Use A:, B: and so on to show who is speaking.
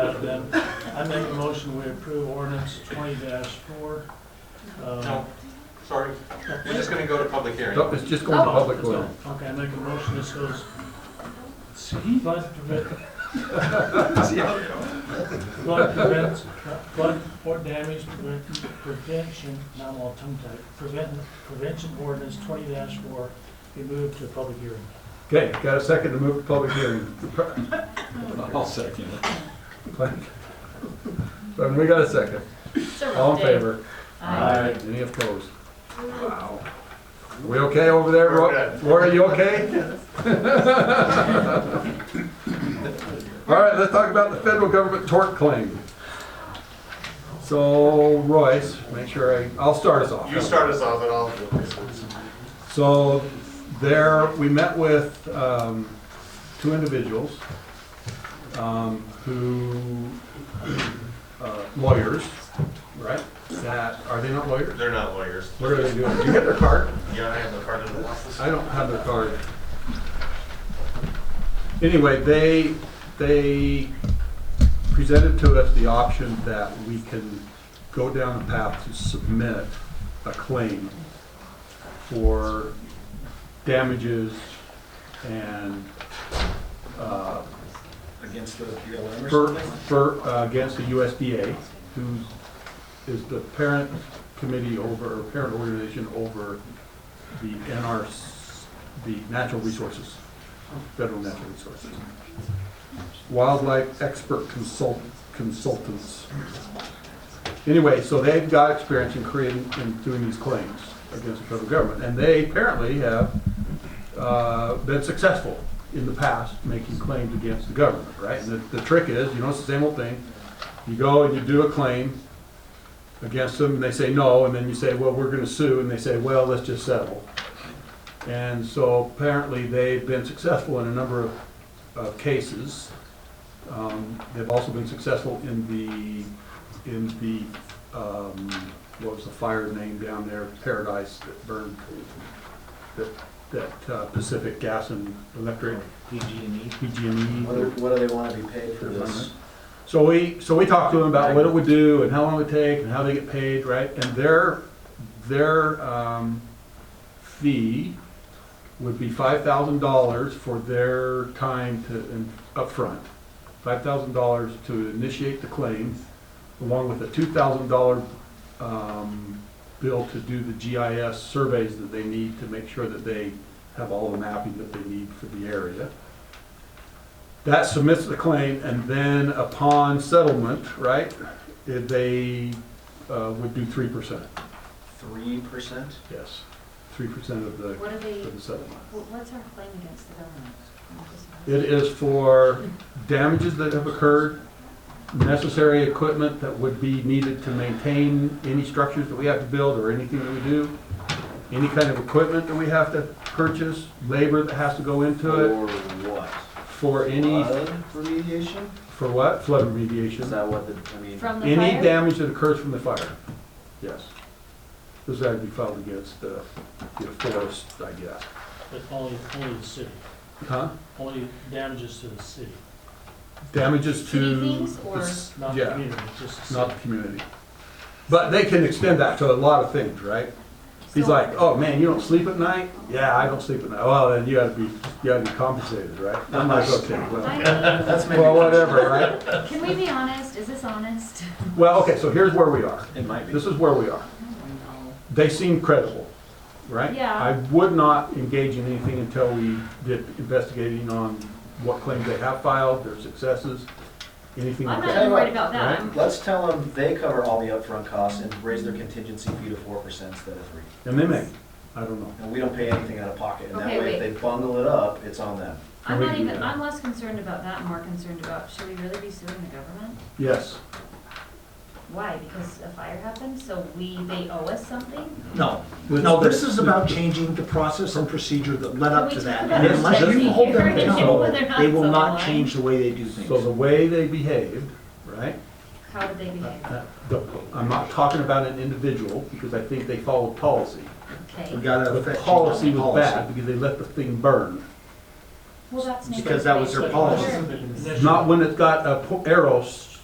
A: then I make a motion, we approve ordinance twenty four. Um,
B: No, sorry, we're just gonna go to public hearing.
C: No, it's just going to
A: Oh,
C: public
A: it's
C: hearing.
A: not. Okay, I make a motion, this goes, see, flood prevent,
B: See how it goes.
A: flood prevent, flood or damage prevent- prevention, not all tongue tied, prevent, prevention ordinance twenty four, be moved to public hearing.
C: Okay, got a second to move to public hearing.
D: I'll second it.
C: But we got a second.
E: It's a rough
C: All in
E: day.
C: favor?
A: Aye.
C: Any opposed? Wow. We okay over there, Roy? Roy, are you okay? All right, let's talk about the federal government tort claim. So Royce, make sure I, I'll start us off.
B: You start us off and I'll do this.
C: So there, we met with um, two individuals um, who, uh, lawyers, right? That, are they not lawyers?
B: They're not lawyers.
C: What are they doing? Do you get their card?
B: Yeah, I am the part of the law.
C: I don't have their card. Anyway, they, they presented to us the option that we can go down the path to submit a claim for damages and, uh,
D: Against the BLM or
C: for,
D: something?
C: for, uh, against the USDA, who is the parent committee over, or parent organization over the NRS, the natural resources, federal natural resources. Wildlife expert consult, consultants. Anyway, so they've got experience in creating, in doing these claims against the federal government, and they apparently have, uh, been successful in the past making claims against the government, right? And the, the trick is, you know, it's the same old thing. You go and you do a claim against them, and they say no, and then you say, well, we're gonna sue, and they say, well, let's just settle. And so apparently, they've been successful in a number of, of cases. Um, they've also been successful in the, in the, um, what was the fire name down there, Paradise that burned, that, that uh, Pacific Gas and Electric,
D: PG&E.
C: PG&E.
F: What do, what do they wanna be paid for this?
C: So we, so we talked to them about what it would do and how long it would take and how they get paid, right? And their, their, um, fee would be five thousand dollars for their time to, in- upfront. Five thousand dollars to initiate the claim, along with a two thousand dollar, um, bill to do the GIS surveys that they need to make sure that they have all the mapping that they need for the area. That submits the claim, and then upon settlement, right, if they uh, would do three percent,
F: Three percent?
C: yes, three percent of the,
E: What are they,
C: of the settlement.
E: wh- what's our claim against the government? I'm just-
C: It is for damages that have occurred, necessary equipment that would be needed to maintain any structures that we have to build or anything that we do, any kind of equipment that we have to purchase, labor that has to go into it,
F: Or what?
C: for any,
F: Flood remediation?
C: for what? Flood
F: Is
C: remediation.
F: that what the, I mean,
E: From the
C: Any
E: fire?
C: damage that occurs from the fire, yes. This had to be filed against the, the forest, I guess.
A: But only, only the city,
C: Huh?
A: only damages to the city,
C: Damages to.
E: City things
C: the
E: or-
C: s-
A: not the
C: Yeah.
A: community, just the city.
C: not the community. But they can extend that to a lot of things, right? He's like, oh, man, you don't sleep at night? Yeah, I don't sleep at night. Well, then you gotta be, you gotta be compensated, right? I'm like, okay, well,
E: I
F: that's maybe.
C: well, whatever, right?
E: mean, Can we be honest? Is this honest?
C: Well, okay, so here's where we are.
F: It might be.
C: This is where we are. They seem credible, right?
E: Yeah.
C: I would not engage in anything until we did investigating on what claims they have filed, their successes, anything
E: I'm
C: like
E: not
C: that.
E: even worried about that. I'm-
F: Let's tell them they cover all the upfront costs and raise their contingency fee to four percent instead of three.
C: And they may, I don't know.
F: And we don't pay anything out of pocket, and that
E: Okay,
F: way, if
E: wait.
F: they bundle it up, it's on them.
E: I'm
C: we
E: not
C: do
E: even,
C: that.
E: I'm less concerned about that, more concerned about, should we really be suing the government?
C: Yes.
E: Why? Because a fire happened, so we, they owe us something?
G: No, no, this is about changing the process and procedure that led up to that. And unless you hold them accountable, they will not change the way they do
C: So the
G: things.
C: way they behaved, right?
E: How did they behave?
C: uh, the- I'm not talking about an individual, because I think they followed policy.
G: We
E: Okay.
G: gotta
C: The
G: affect change
C: policy
G: the
C: was bad, because they let the thing burn.
E: Well, that's.
G: Because that was
A: But
G: their
A: it
G: policy.
A: wasn't the initial-
C: Not when it's got a po- arrow s-